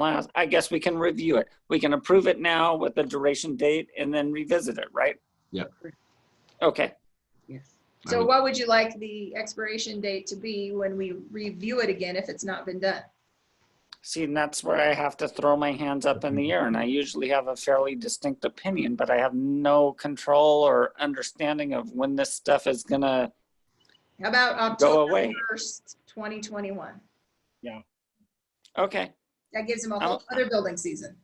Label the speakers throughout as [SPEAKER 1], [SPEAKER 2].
[SPEAKER 1] allows, I guess we can review it. We can approve it now with the duration date and then revisit it, right?
[SPEAKER 2] Yep.
[SPEAKER 1] Okay,
[SPEAKER 3] Yes.
[SPEAKER 2] I
[SPEAKER 4] So
[SPEAKER 2] would-
[SPEAKER 4] what would you like the expiration date to be when we review it again if it's not been done?
[SPEAKER 1] see, and that's where I have to throw my hands up in the air, and I usually have a fairly distinct opinion, but I have no control or understanding of when this stuff is gonna
[SPEAKER 4] How about
[SPEAKER 1] go
[SPEAKER 4] October
[SPEAKER 1] away.
[SPEAKER 4] first, twenty twenty-one?
[SPEAKER 1] Okay,
[SPEAKER 4] That gives them a whole other building season.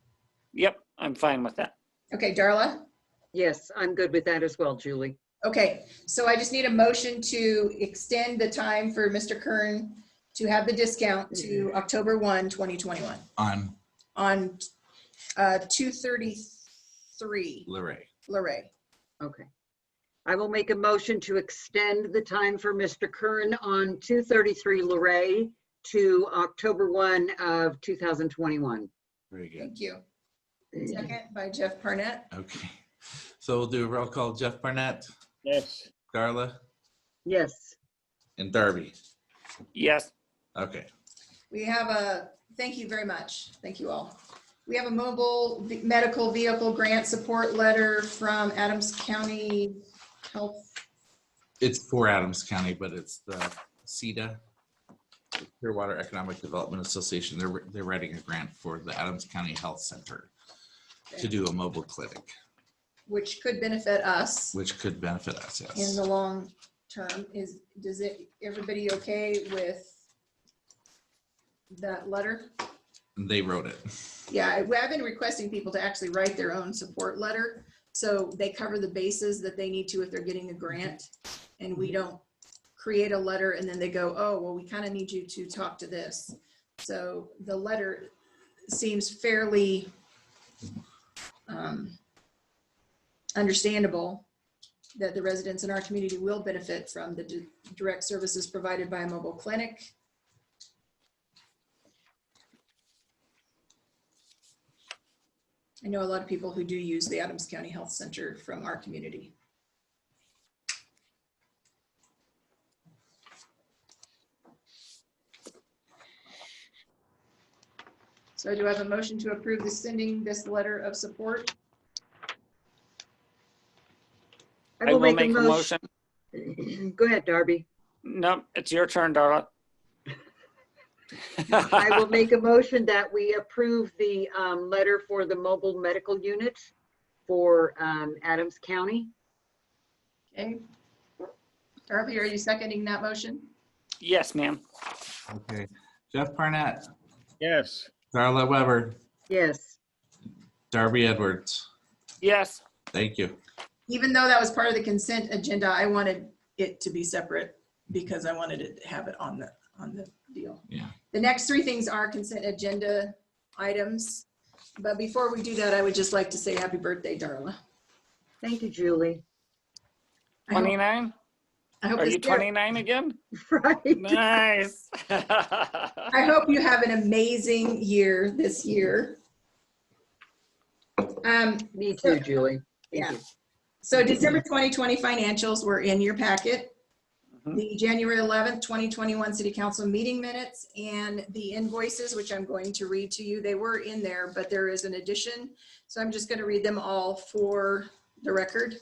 [SPEAKER 1] yep, I'm fine with that.
[SPEAKER 4] Okay, Darla?
[SPEAKER 3] Yes, I'm good with that as well, Julie.
[SPEAKER 4] Okay, so I just need a motion to extend the time for Mr. Kern to have the discount to October 1, 2021
[SPEAKER 5] on
[SPEAKER 4] on uh, 233
[SPEAKER 2] Larray.
[SPEAKER 4] Luray.
[SPEAKER 3] Okay. I will make a motion to extend the time for Mr. Kern on 233 Luray to October 1 of 2021.
[SPEAKER 2] Very good.
[SPEAKER 4] Thank you. Second by Jeff Parnett.
[SPEAKER 5] Okay. So we'll do a roll call. Jeff Barnett,
[SPEAKER 1] Yes.
[SPEAKER 5] Darla,
[SPEAKER 3] Yes,
[SPEAKER 5] and Darby.
[SPEAKER 1] Yes,
[SPEAKER 5] Okay.
[SPEAKER 4] We have a, thank you very much. Thank you all. We have a mobile v- medical vehicle grant support letter from Adams County Health.
[SPEAKER 5] It's for Adams County, but it's the CEDA, the Clearwater Economic Development Association. They're, they're writing a grant for the Adams County Health Center to do a mobile clinic,
[SPEAKER 4] Which could benefit us.
[SPEAKER 5] which could benefit us,
[SPEAKER 4] in
[SPEAKER 5] yes.
[SPEAKER 4] the long term is, does it, everybody okay with that letter?
[SPEAKER 5] And They wrote it.
[SPEAKER 4] Yeah, I- I've been requesting people to actually write their own support letter. So they cover the bases that they need to if they're getting a grant. And we don't create a letter and then they go, oh, well, we kind of need you to talk to this. So the letter seems fairly um, understandable that the residents in our community will benefit from the di- direct services provided by a mobile clinic. I know a lot of people who do use the Adams County Health Center from our community. So do I have a motion to approve the sending this letter of support?
[SPEAKER 1] I will make a motion.
[SPEAKER 3] motion. Go ahead, Darby.
[SPEAKER 1] No, it's your turn, Darla.
[SPEAKER 3] I will make a motion that we approve the um, letter for the mobile medical unit for um, Adams County.
[SPEAKER 4] Okay. Darby, are you seconding that motion?
[SPEAKER 1] Yes, ma'am.
[SPEAKER 5] Okay. Jeff Barnett,
[SPEAKER 6] Yes,
[SPEAKER 5] Darla Weber,
[SPEAKER 3] Yes,
[SPEAKER 5] Darby Edwards.
[SPEAKER 1] Yes,
[SPEAKER 5] Thank you.
[SPEAKER 4] Even though that was part of the consent agenda, I wanted it to be separate because I wanted it to have it on the, on the deal.
[SPEAKER 5] Yeah.
[SPEAKER 4] The next three things are consent agenda items. But before we do that, I would just like to say happy birthday, Darla.
[SPEAKER 3] thank you, Julie.
[SPEAKER 4] I hope-
[SPEAKER 1] 29?
[SPEAKER 4] I hope
[SPEAKER 1] Are
[SPEAKER 4] this
[SPEAKER 1] you 29 again?
[SPEAKER 3] Right.
[SPEAKER 1] Nice.
[SPEAKER 4] I hope you have an amazing year this year. Um,
[SPEAKER 3] Me too, Julie. Thank you.
[SPEAKER 4] so December 2020 financials were in your packet.
[SPEAKER 1] Mhm.
[SPEAKER 4] The January 11th, 2021 city council meeting minutes and the invoices, which I'm going to read to you. They were in there, but there is an addition. So I'm just going to read them all for the record.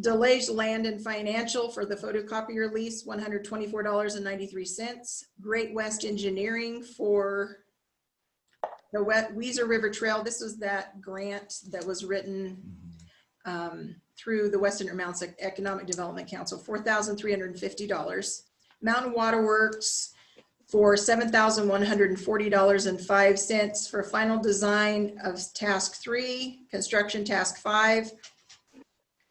[SPEAKER 4] Delage Land and Financial for the photocopier lease, $124.93. Great West Engineering for the We- Weezer River Trail. This was that grant that was written um, through the Western Mounts Economic Development Council, four thousand three hundred and fifty dollars. Mountain Water Works for seven thousand one hundred and forty dollars and five cents for final design of task three, construction task five,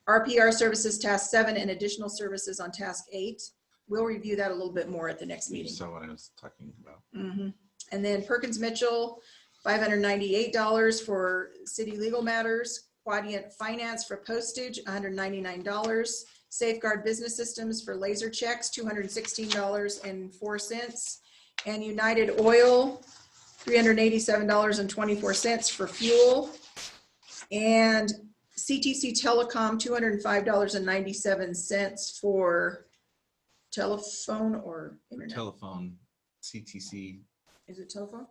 [SPEAKER 4] RPR services task seven, and additional services on task eight. We'll review that a little bit more at the next meeting.
[SPEAKER 5] So what I was talking about.
[SPEAKER 4] Mhm. And then Perkins Mitchell, five hundred ninety-eight dollars for city legal matters, Quadient Finance for postage, hundred ninety-nine dollars, Safeguard Business Systems for laser checks, two hundred sixteen dollars and four cents, and United Oil, three hundred eighty-seven dollars and twenty-four cents for fuel, and CTC Telecom, two hundred five dollars and ninety-seven cents for telephone or internet.
[SPEAKER 5] Telephone, CTC
[SPEAKER 4] Is it Tofa?